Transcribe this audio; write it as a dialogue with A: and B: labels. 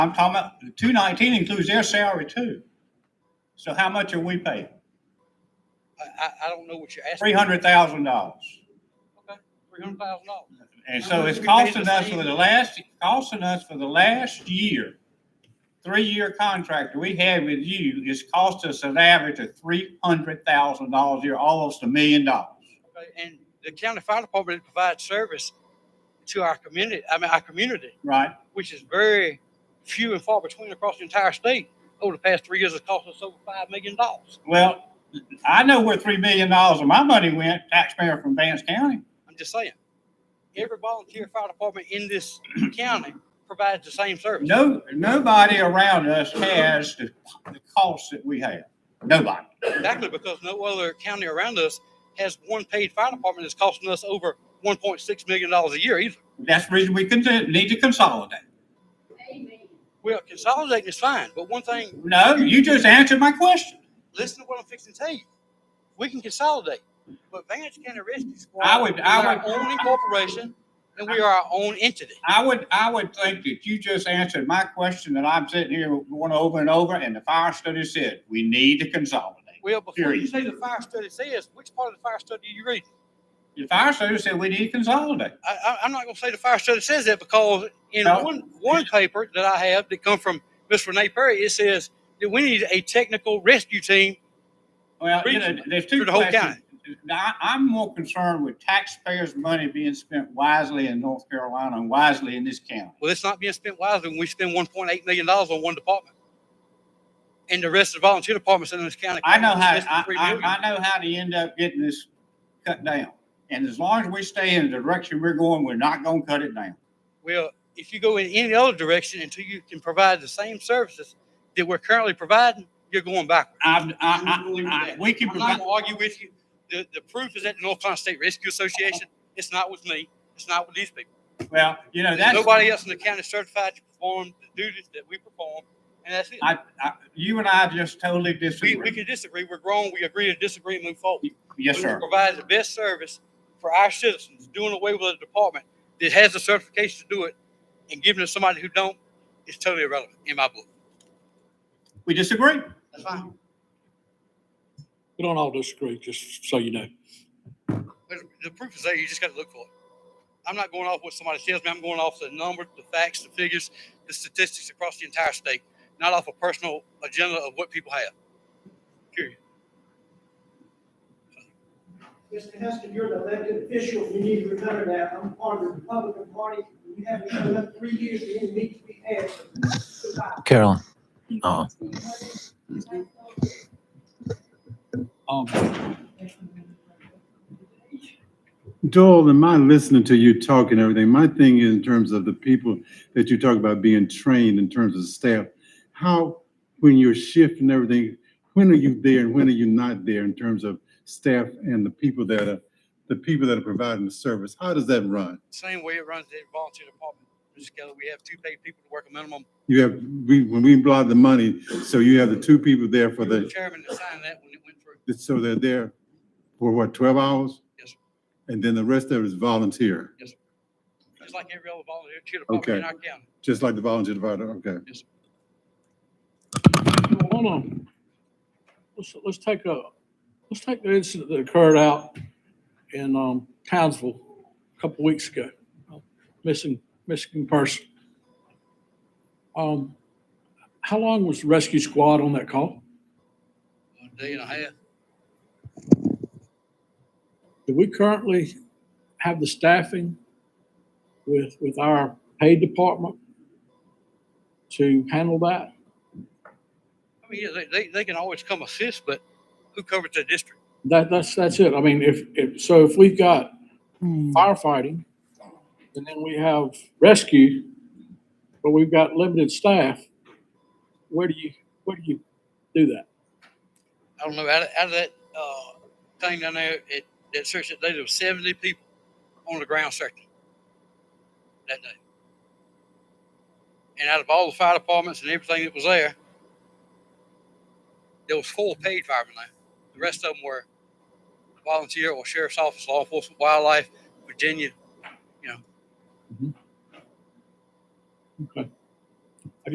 A: I'm talking about, two nineteen includes their salary too. So how much are we paying?
B: I, I, I don't know what you're asking.
A: Three hundred thousand dollars.
B: Three hundred thousand dollars.
A: And
B: How
A: so
B: much
A: it's
B: we paying
A: costing
B: the
A: us
B: state?
A: for the last, costing us for the last year, three-year contract we had with you, it's cost us an average of three hundred thousand dollars a year, almost a million dollars.
B: And the county fire department provides service to our community, I mean, our community,
A: Right,
B: which is very few and far between across the entire state. Over the past three years, it's cost us over five million dollars.
A: well, I know where three million dollars of my money went, taxpayer from Vance County.
B: I'm just saying. Every volunteer fire department in this county provides the same service.
A: No, nobody around us has the, the costs that we have. Nobody.
B: Exactly, because no other county around us has one paid fire department that's costing us over one point six million dollars a year either.
A: That's the reason we con- need to consolidate.
B: Well, consolidating is fine, but one thing,
A: No, you just answered my question.
B: listen to what I'm fixing to tell you. We can consolidate, but Vance County Rescue Squad.
A: I would- I
B: is Our
A: would-
B: own incorporation, and we are our own entity.
A: I would, I would think that you just answered my question that I'm sitting here going over and over, and the fire study said, we need to consolidate.
B: Well, before you
A: Period.
B: say the fire study says, which part of the fire study are you reading?
A: The fire study said we need to consolidate.
B: I, I, I'm not gonna say the fire study says that because in
A: No.
B: one, one paper that I have that come from Miss Renee Perry, it says that we need a technical rescue team.
A: Well, you know, there's two
B: For the whole
A: questions. I, I'm more concerned with taxpayers' money being spent wisely in North Carolina and wisely in this county.
B: Well, it's not being spent wisely when we spend one point eight million dollars on one department. And the rest of the volunteer departments in this county.
A: I know how,
B: less than
A: I,
B: three
A: I,
B: million.
A: I know how to end up getting this cut down. And as long as we stay in the direction we're going, we're not gonna cut it down.
B: Well, if you go in any other direction until you can provide the same services that we're currently providing, you're going backward.
A: I, I, I, I, we can
B: I'm not
A: provide,
B: gonna argue with you. The, the proof is at the North Carolina State Rescue Association. It's not with me. It's not with these people.
A: well, you know, that's.
B: Nobody else in the county certified to perform the duties that we perform, and that's it.
A: I, I, you and I just totally
B: We, we
A: disagree.
B: can disagree, we're grown, we agree to disagree and move forward.
A: Yes,
B: We
A: sir.
B: Provide the best service for our citizens, doing away with a department that has the certification to do it and giving it to somebody who don't is totally irrelevant in my book.
A: We disagree.
B: That's fine.
C: We don't all disagree, just so you know.
B: But the proof is there, you just gotta look for it. I'm not going off what somebody tells me, I'm going off the numbers, the facts, the figures, the statistics across the entire state, not off a personal agenda of what people have. Period.
D: Mr. Heston, you're an elected official, you need to remember that, I'm part of the Republican Party, you haven't shown up three years, you need to be answered. Goodbye.
E: Carolyn. Uh-uh.
C: Um,
F: Doyle, am I listening to you talk and everything? My thing is in terms of the people that you talk about being trained in terms of staff. How, when you're shifting everything, when are you there and when are you not there in terms of staff and the people that are, the people that are providing the service? How does that run?
B: same way it runs the volunteer department. Mr. Keller, we have two paid people to work a minimum.
F: You have, we, when we block the money, so you have the two people there for
B: You were the
F: the,
B: chairman that signed that when it went through.
F: so they're there for what, twelve hours?
B: Yes, sir.
F: And then the rest of it is volunteer,
B: Just like every other volunteer department in our county.
F: just like the volunteer provider, okay?
C: hold on. Let's, let's take a, let's take the incident that occurred out in, um, Townsville a couple weeks ago. Missing, missing person. Um, how long was the rescue squad on that call?
B: A day and a half.
C: Do we currently have the staffing with, with our paid department to handle that?
B: I mean, yeah, they, they, they can always come assist, but who covers the district?
C: That, that's, that's it. I mean, if, if, so if we've got firefighting, and then we have rescue, but we've got limited staff, where do you, where do you do that?
B: I don't know, out of, out of that, uh, thing down there, it, that search that day, there was seventy people on the ground searching that day. And out of all the fire departments and everything that was there, there was four paid firemen there. The rest of them were volunteer or sheriff's office, law enforcement, wildlife, Virginia,